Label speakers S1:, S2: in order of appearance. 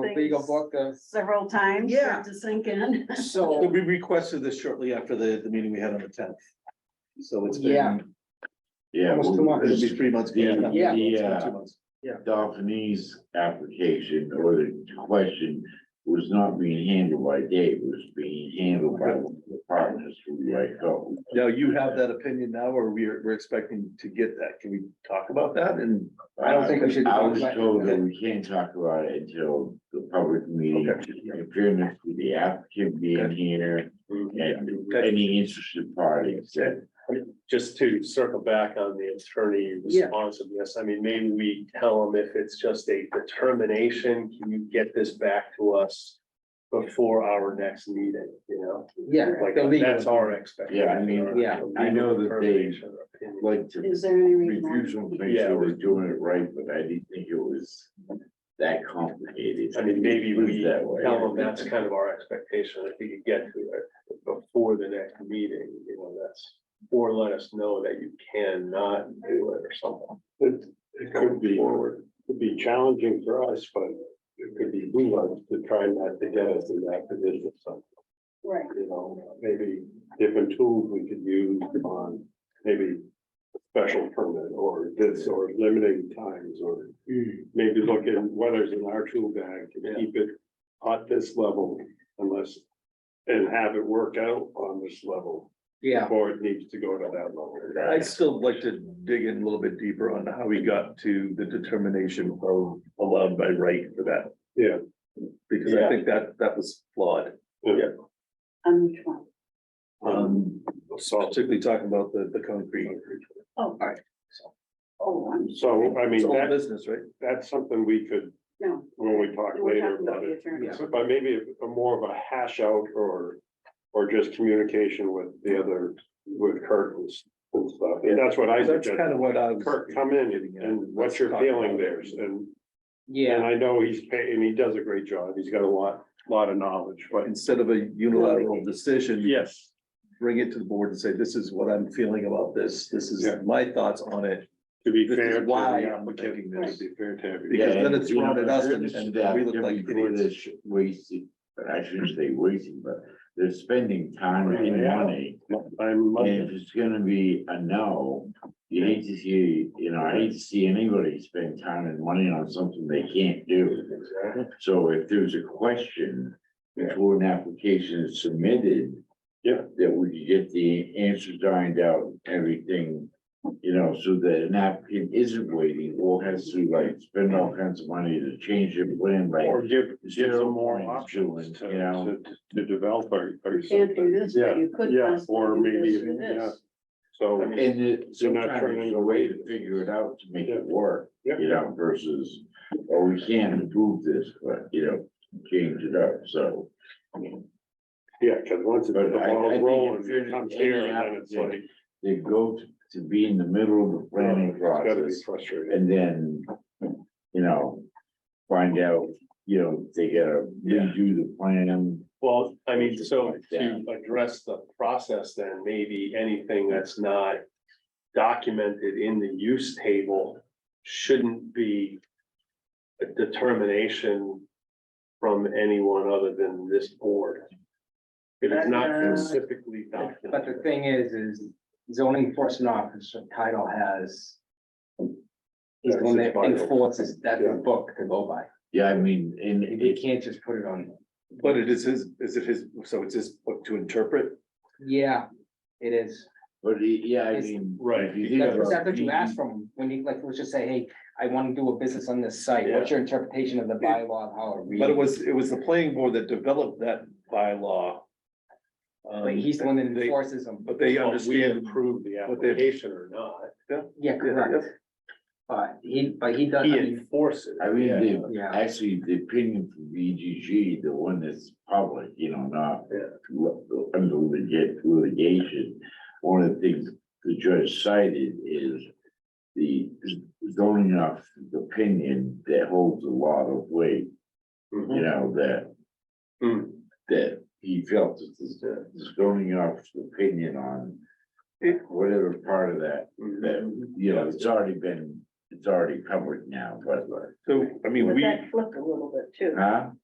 S1: legal book of.
S2: several times. for it
S3: Yeah.
S2: To sink in.
S1: So,
S4: We requested this shortly after the, the meeting we had on the tenth. So it's
S1: Yeah.
S4: been,
S5: Yeah,
S1: Almost
S5: well,
S1: two months.
S4: it'll
S5: this
S4: be three months.
S1: Yeah.
S4: It's been
S5: Yeah.
S4: two months.
S5: Dolphinese application or the question was not being handled by Dave, it was being handled by the partners who I go.
S4: Now, you have that opinion now, or we're, we're expecting to get that. Can we talk about that and?
S1: I don't think we should-
S5: I was told that we can't talk about it until the public meeting,
S4: Okay.
S5: appearance to the applicant being here
S6: Mm-hmm.
S5: and any interested parties that.
S6: just to circle back on the attorney
S3: Yeah.
S6: responsiveness, I mean, maybe we tell them if it's just a determination, can you get this back to us? Before our next meeting, you know,
S1: yeah,
S6: like,
S1: the legal.
S6: that's our expectation.
S5: Yeah, I mean,
S6: or
S1: yeah,
S5: I know that they-
S6: determination or opinion.
S5: Like to
S2: Is there any
S5: refusal,
S2: reason? why-
S5: make sure we're doing it right, but I didn't think it was that complicated.
S6: I mean, maybe
S5: It was
S6: we
S5: that way.
S6: Tell them that's kind of our expectation, if we could get to it before the next meeting, you know, that's. Or let us know that you cannot do it or something.
S7: It, it could be, it could be challenging for us, but it could be wise to try not to get us in that position, so,
S2: Right.
S7: you know, maybe different tools we could use on maybe a special permit or this or limiting times or maybe look at whether's in our tool bag
S6: Yeah.
S7: to keep it at this level unless and have it work out on this level
S1: Yeah,
S7: before it needs to go to that level.
S4: I'd still like to dig in a little bit deeper on how we got to the determination of allowed by right for that.
S7: Yeah.
S4: Because I think that, that was flawed,
S2: On which one?
S4: um, particularly talking about the, the concrete.
S2: Oh,
S4: right.
S2: Oh, I'm.
S7: So, I
S4: It's
S7: mean,
S4: all
S7: that,
S4: business, right?
S7: that's something we could,
S2: No,
S7: when we talk
S2: we're
S7: later
S2: talking about
S7: about
S2: the
S7: it.
S2: attorney.
S1: Yeah.
S7: But maybe a more of a hash out or, or just communication with the other, with Kurt and s- and stuff. And that's what I
S4: That's
S7: suggest.
S4: kind of what I was.
S7: Kurt, come in and- and what's your feeling there? And, and
S1: yeah,
S7: I know he's, pa- and he does a great job. He's got a lot, lot of knowledge, but
S4: Instead of a unilateral decision.
S7: yes.
S4: bring it to the board and say, this is what I'm feeling about this, this is
S7: Yeah.
S4: my thoughts on it.
S7: To be
S4: This is
S7: fair to the
S4: why I'm
S7: applicant,
S4: thinking
S7: to
S4: this.
S7: be fair to everybody.
S4: Because
S5: Yeah,
S4: then it's
S5: you know,
S4: thrown at us and-
S5: there's
S4: and
S5: that
S4: we look like
S5: everybody
S4: idiots.
S5: that's Wasting, but I shouldn't say wasting, but they're spending time and
S7: Yeah.
S5: money.
S7: I'm,
S5: And if it's gonna be a no, you hate to see, you know, I hate to see anybody spend time and money on something they can't do. So if there's a question before an application is submitted.
S7: Yeah.
S5: That we could get the answer dined out, everything, you know, so that an applicant isn't waiting or has to like spend all kinds of money to change their plan, like.
S7: or give, give
S5: zero
S7: them more
S5: point
S7: options
S5: two
S7: to,
S5: and, you know.
S7: to, to develop or, or
S2: You Can't do
S7: something.
S2: this,
S7: Yeah,
S2: but you could.
S7: yeah,
S2: possibly
S7: or
S2: do this
S7: maybe, yeah.
S2: this.
S7: So.
S5: And it,
S7: You're not
S5: sometimes
S7: turning
S5: there's a way to figure it out to make it work,
S7: Yeah.
S5: you know, versus, oh, we can't improve this, but, you know, change it up, so.
S7: Yeah, cause once it- the
S5: But I- I
S7: ball's
S5: think
S7: rolling,
S5: if you're-
S7: it comes here
S5: any
S7: and then it's like.
S5: applicant They go to- to be in the middle of the planning
S7: Oh, it's gotta be
S5: process
S7: frustrating.
S5: and then, you know, find out, you know, they gotta
S6: Yeah.
S5: redo the plan.
S6: Well, I mean, so
S5: Like
S6: to
S5: that.
S6: address the process, then maybe anything that's not documented in the use table shouldn't be a determination from anyone other than this board. If it's not
S1: Uh,
S6: specifically
S1: but the
S6: documented.
S1: thing is, is zoning enforcement officer title has. Is the one that enforces that book to go by,
S5: Yeah, I mean, and
S1: you
S5: it,
S1: can't just put it on,
S4: But it is his, is it his, so it's his book to interpret?
S1: yeah, it is.
S5: but it- yeah, I
S1: It's-
S5: mean.
S6: Right.
S5: if you think
S1: That's what
S5: about
S1: that's what you
S5: it,
S1: ask from, when you, like, let's just say, hey, I wanna do a business on this site, what's your interpretation of the bylaw, and how it reads?
S4: But it was, it was the planning board that developed that bylaw. Um,
S1: But he's the one that
S4: they-
S1: enforces them,
S4: But
S7: Oh,
S4: they
S6: Well, We
S4: understand,
S6: approve the
S4: what they-
S6: application or not,
S1: yeah, correct, but he, but he does, I
S6: he
S1: mean,
S6: enforces.
S5: I mean, the
S1: yeah,
S5: Actually, the opinion from VGG, the one that's public, you know, not li- under litig- litigation. One of the things the judge cited is the zoning officer's opinion that holds a lot of weight, you know, that
S6: Hmm.
S5: that he felt that the the zoning officer's
S6: Mm-hmm.
S5: opinion on whatever part of that, that, you know, it's already been it's already covered now, but,
S4: So, I mean,
S2: But
S4: we,
S2: that flipped a little bit too.
S5: huh?